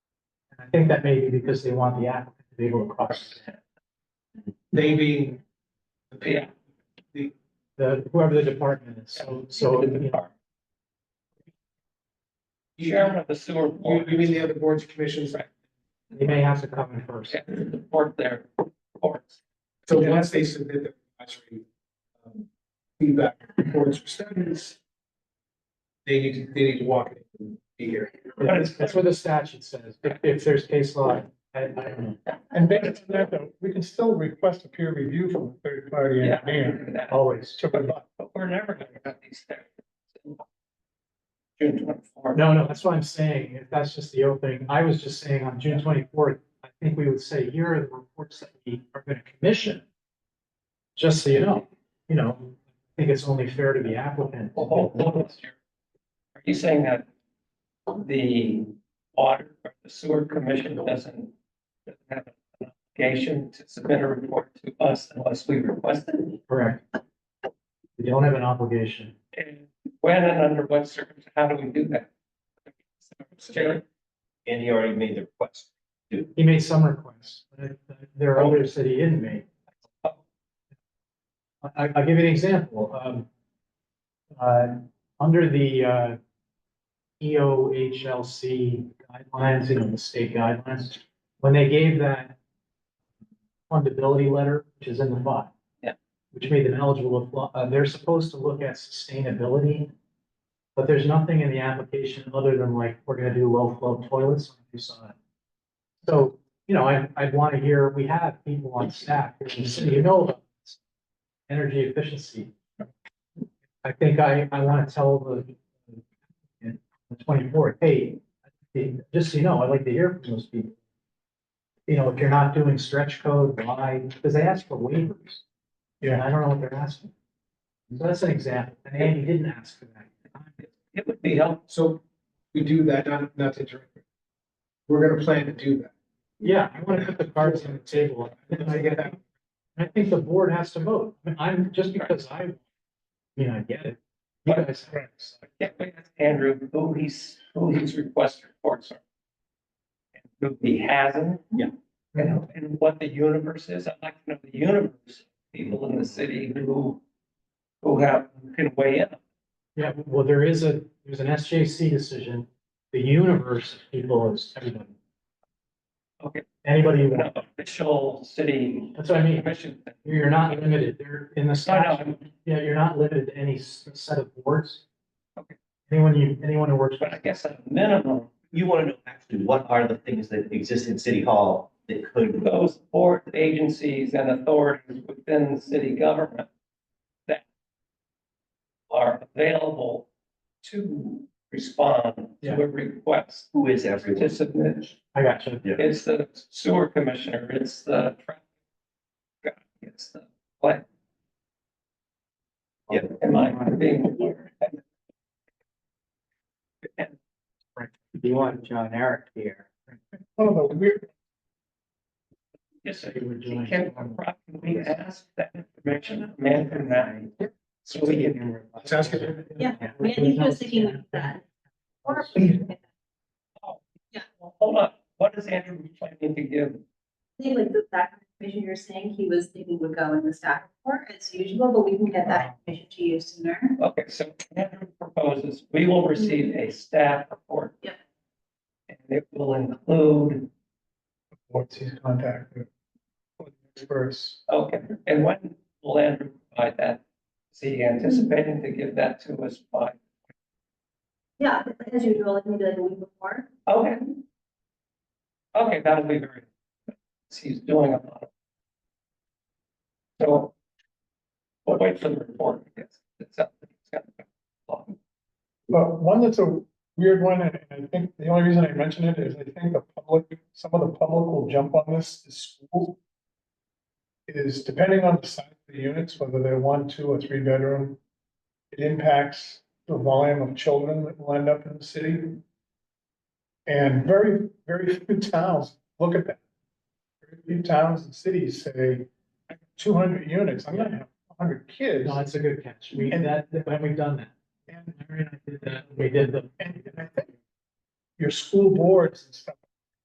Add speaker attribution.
Speaker 1: think that may be because they want the applicant to be able to cross.
Speaker 2: They being the pay,
Speaker 1: The, whoever the department is, so, so, you know,
Speaker 3: Chairman of the sewer
Speaker 2: you,
Speaker 3: board.
Speaker 2: you mean the other boards, commissions?
Speaker 1: they may have to come in first.
Speaker 3: Yeah, Support their reports.
Speaker 2: So once they submit their advisory um, feedback reports or studies, they need to, they need to walk it and be here.
Speaker 1: That's that's what the statute says, if, if there's case law, I, I don't know.
Speaker 4: And based on that, though, we can still request a peer review from a third party
Speaker 3: Yeah, I
Speaker 4: engineer.
Speaker 3: remember that.
Speaker 1: always.
Speaker 4: to provide-
Speaker 3: But we're never gonna get these there. June twenty-four.
Speaker 1: No, no, that's what I'm saying, if that's just the opening, I was just saying on June twenty-fourth, I think we would say, here are the reports that we are gonna commission. Just so you know, you know, I think it's only fair to the applicant.
Speaker 3: Well, hold- hold on, sir. Are you saying that the water or the sewer commission doesn't doesn't have an obligation to submit a report to us unless we request it?
Speaker 1: Correct. We don't have an obligation.
Speaker 3: And when and under what circumstances, how do we do that? Chair,
Speaker 5: And he already made the request.
Speaker 1: He made some requests, but uh, there are others that he didn't make. I, I'll give you an example, um, uh, under the, uh, E EOHLC guidelines, you know, the state guidelines, when they gave that fundability letter, which is in the file.
Speaker 3: Yeah.
Speaker 1: Which made them eligible, to apply- uh, they're supposed to look at sustainability, but there's nothing in the application other than like, we're gonna do low flow toilets, we saw it. So, you know, I, I'd want to hear, we have people on staff here in the city who know about this, energy efficiency. I think I, I want to tell the, in the twenty-fourth, hey, just so you know, I'd like to hear from those people. You know, if you're not doing stretch code, why? Because they ask for waivers. And I don't know what they're asking. So that's an example, and Andy didn't ask for that.
Speaker 3: it would be helpful
Speaker 2: So we do that, not, not to interrupt. We're gonna plan to do that.
Speaker 1: Yeah, I want to put the cards on the table.
Speaker 2: Then I get that.
Speaker 1: I think the board has to vote. I mean, I'm, just because I, I mean, I get it. You guys,
Speaker 3: Yeah, we asked Andrew who he's, who his request reports are. and Who he hasn't.
Speaker 1: Yeah.
Speaker 3: And, and what the universe is, I'd like to know the universe, people in the city who, who have, who can weigh in.
Speaker 1: yeah, well, there is a, there's an SJC decision. The universe of people is everybody.
Speaker 3: Okay.
Speaker 1: Anybody you
Speaker 3: An
Speaker 1: want.
Speaker 3: official city
Speaker 1: That's what I mean.
Speaker 3: commission.
Speaker 1: You're not limited. They're in the
Speaker 3: No, no,
Speaker 1: statute. Yeah, you're not limited to any s- set of boards.
Speaker 3: Okay.
Speaker 1: Anyone you, anyone who works.
Speaker 3: but I guess at a minimum,
Speaker 5: You want to know actually what are the things that exist in City Hall that could,
Speaker 3: those board agencies and authorities within city government that are available to respond
Speaker 1: Yeah.
Speaker 3: to a request
Speaker 5: who is
Speaker 3: to
Speaker 5: everyone?
Speaker 3: submit.
Speaker 1: I got you.
Speaker 3: It's the sewer commissioner, it's the traffic guy, it's the what? Yeah, am I being weird?
Speaker 5: You want John Eric here.
Speaker 4: One of the weird,
Speaker 3: Yes,
Speaker 1: They were doing-
Speaker 3: can properly ask that information, man from that. So we can,
Speaker 2: Let's ask it.
Speaker 6: Yeah, Randy was thinking of that. Wonderful.
Speaker 3: hold on, what is Andrew planning to give?
Speaker 6: I think like the back information you're saying, he was thinking would go in the staff report as usual, but we can get that information to you sooner.
Speaker 3: Okay, so Andrew proposes, we will receive a staff report.
Speaker 6: Yep.
Speaker 3: And it will include,
Speaker 4: what's his contact with? with Experts,
Speaker 3: okay, and when will Andrew provide that? Is he anticipating to give that to us by
Speaker 6: Yeah, as usual, like maybe like a week before.
Speaker 3: Okay. Okay, that'll be very, he's doing a lot. of So. We'll wait for the report, I guess. It's up- it's got a lot.
Speaker 4: but one that's a weird one, and I think the only reason I mention it is I think the public, some of the public will jump on this, is school. Is depending on the size of the units, whether they're one, two, or three bedroom. It impacts the volume of children that will end up in the city. And very, very few towns look at that. Very few towns and cities say, two hundred units, I'm gonna have hundred kids.
Speaker 1: No, that's a good catch. We,
Speaker 4: And-
Speaker 1: that, when we've done that.
Speaker 4: And
Speaker 1: Larry and I did that. We did the
Speaker 4: and and I think your school boards and stuff